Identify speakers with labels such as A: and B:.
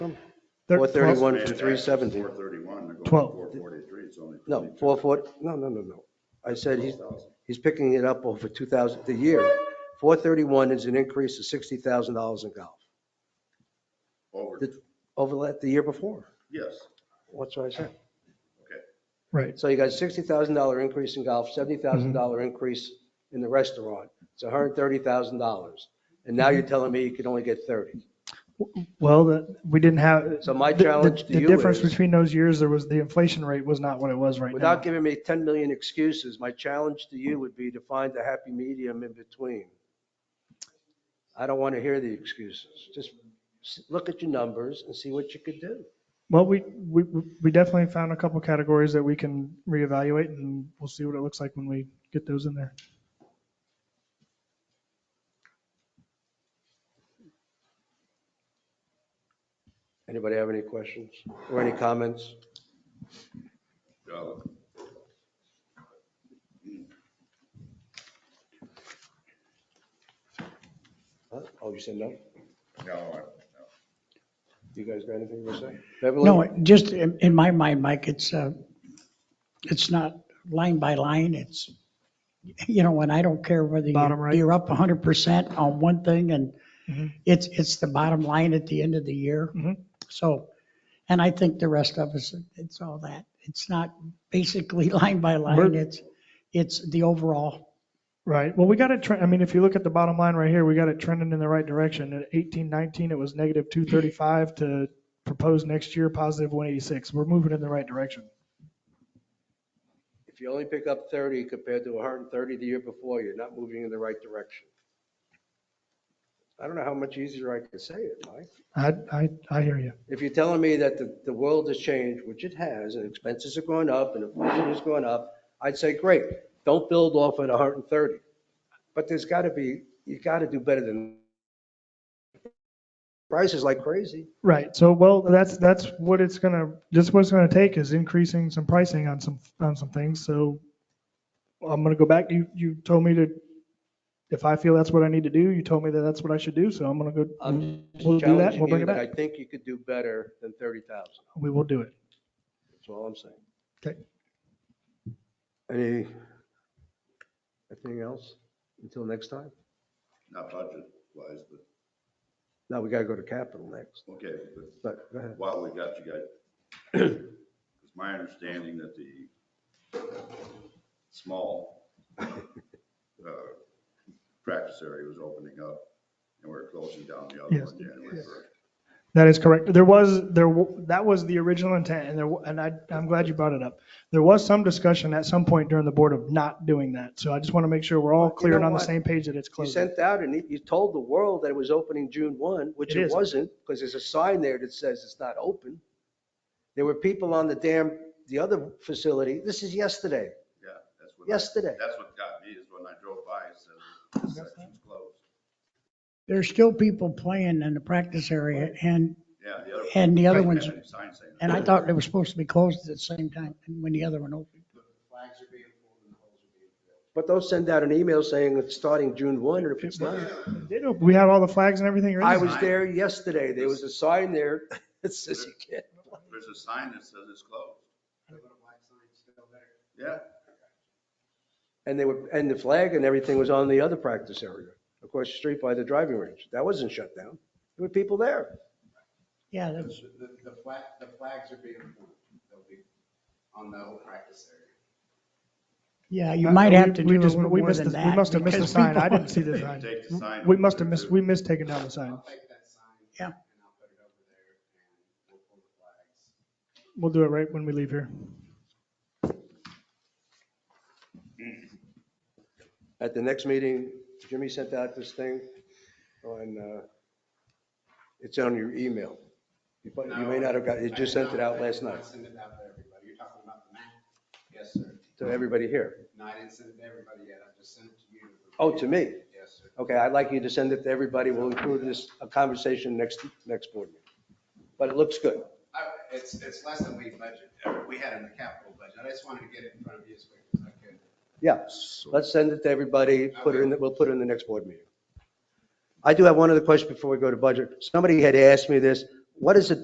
A: They're-
B: 431 and
C: Four
B: 370.
C: thirty-one, they're going
A: Twelve.
C: four forty-three, it's only.
B: No, 440, no, no, no, no. I said he's, he's picking it up over 2,000, the year. 431 is an increase of $60,000 in golf
C: Over,
B: The- over la- the year before.
C: yes,
B: What's what I said?
A: Right,
B: So you got $60,000 increase in golf, $70,000 increase in the restaurant. It's $130,000. And now you're telling me you can only get 30.
A: well, the- we didn't have.
B: So my
A: the- the-
B: challenge to
A: The
B: you
A: difference
B: is-
A: between those years, there was, the inflation rate was not what it was right now.
B: Without giving me 10 million excuses, my challenge to you would be to find the happy medium in between. I don't want to hear the excuses. Just s- look at your numbers and see what you could do.
A: Well, we, we, we definitely found a couple categories that we can reevaluate and we'll see what it looks like when we get those in there.
B: Anybody have any questions or any comments?
C: uh,
B: Huh? Oh, you said no?
C: no, I- no.
B: You guys got anything to say? Beverly?
D: No, just in, in my mind, Mike, it's, uh, it's not line by line, it's, you know, and I don't care whether
A: Bottom
D: you-
A: right.
D: you're up 100% on one thing and
A: Mhm.
D: it's, it's the bottom line at the end of the year.
A: Mhm.
D: So, and I think the rest of us, it's all that. It's not basically line by line,
A: We're-
D: it's, it's the overall.
A: Right. Well, we got it, tre- I mean, if you look at the bottom line right here, we got it trending in the right direction. At 18, 19, it was negative 235 to propose next year, positive 186. We're moving in the right direction.
B: If you only pick up 30 compared to 130 the year before, you're not moving in the right direction. I don't know how much easier I can say it, Mike.
A: I, I, I hear you.
B: If you're telling me that the, the world has changed, which it has, and expenses are going up and inflation is going up, I'd say, great, don't build off at 130. But there's got to be, you got to do better than prices like crazy.
A: Right. So, well, that's, that's what it's gonna, just what it's gonna take is increasing some pricing on some, on some things. So I'm gonna go back. You, you told me to, if I feel that's what I need to do, you told me that that's what I should do. So I'm gonna go,
B: I'm just
A: Mm-hmm. We'll do that, we'll
B: challenging
A: bring
B: you
A: it
B: that I
A: back.
B: think you could do better than 30,000.
A: we will do it.
B: That's all I'm saying.
A: Okay.
B: Any, anything else until next time?
C: not budget wise, but,
B: No, we got to go to capital next,
C: okay, but
B: but go ahead.
C: while we got you guys, it's my understanding that the small uh, practice area was opening up, and we're closing down the other
A: Yes.
C: one January first.
A: That is correct. There was, there, w- that was the original intent and there, w- and I, I'm glad you brought it up. There was some discussion at some point during the board of not doing that. So I just want to make sure we're
B: Well,
A: all
B: you
A: clear and
B: know
A: on the
B: what?
A: same page that it's
B: You
A: closing.
B: sent out and you- you told the world that it was opening June 1, which
A: It
B: it
A: is.
B: wasn't, because there's a sign there that says it's not open. There were people on the dam, the other facility, this is yesterday,
C: Yeah, that's what.
B: yesterday.
C: That's what got me, is when I drove by, it said, this section's closed.
D: There's still people playing in the practice area and,
C: Yeah, the other.
D: and the other
C: Didn't
D: ones,
C: have any sign saying that.
D: and I thought they were supposed to be closed at the same time when the other one opened.
B: But don't send out an email saying it's starting June 1, or if it's not.
A: They don't- We had all the flags and everything.
B: I
A: ready.
B: was there yesterday, there was a sign there that says you can't.
C: There's a sign that says it's closed. Yeah,
B: And they were, and the flag and everything was on the other practice area, across the street by the driving range. That wasn't shut down. There were people there.
D: Yeah, that's.
E: The, the flag, the flags are being moved, they'll be on the whole practice area.
D: Yeah, you
A: Uh,
D: might
A: we-
D: have to
A: we
D: do a
A: just-
D: little
A: we
D: more
A: missed
D: than
A: the-
D: that.
A: We must have missed the
D: because
A: sign. I
D: people-
A: didn't see the
C: They
A: sign.
C: take the sign
A: We
C: over
A: must have
C: there,
A: missed,
C: too.
A: we missed taking down the sign.
E: I'll take that sign.
D: Yeah.
E: And I'll put it over there and we'll pull the flags.
A: We'll do it right when we leave here.
B: At the next meeting, Jimmy sent out this thing on, uh, it's on your email. You probably- you may not have got, you
E: I
B: just
E: did
B: sent it
E: not-
B: out last
E: I
B: night
E: did not send it out to everybody, you're talking about the map? Yes, sir.
B: to everybody here.
E: No, I didn't send it to everybody yet, I just sent it to you.
B: Oh, to me?
E: Yes, sir.
B: Okay, I'd like you to send it to everybody. We'll include this, a conversation next, next board meeting. But it looks good.
E: I- Oh, It's, it's less than we budgeted, we had in the capital budget, I just wanted to get it in front of you as quick as I could.
B: Yeah, let's send it to everybody, put it in, the- we'll put it in the next board meeting. I do have one other question before we go to budget. Somebody had asked me this, what is the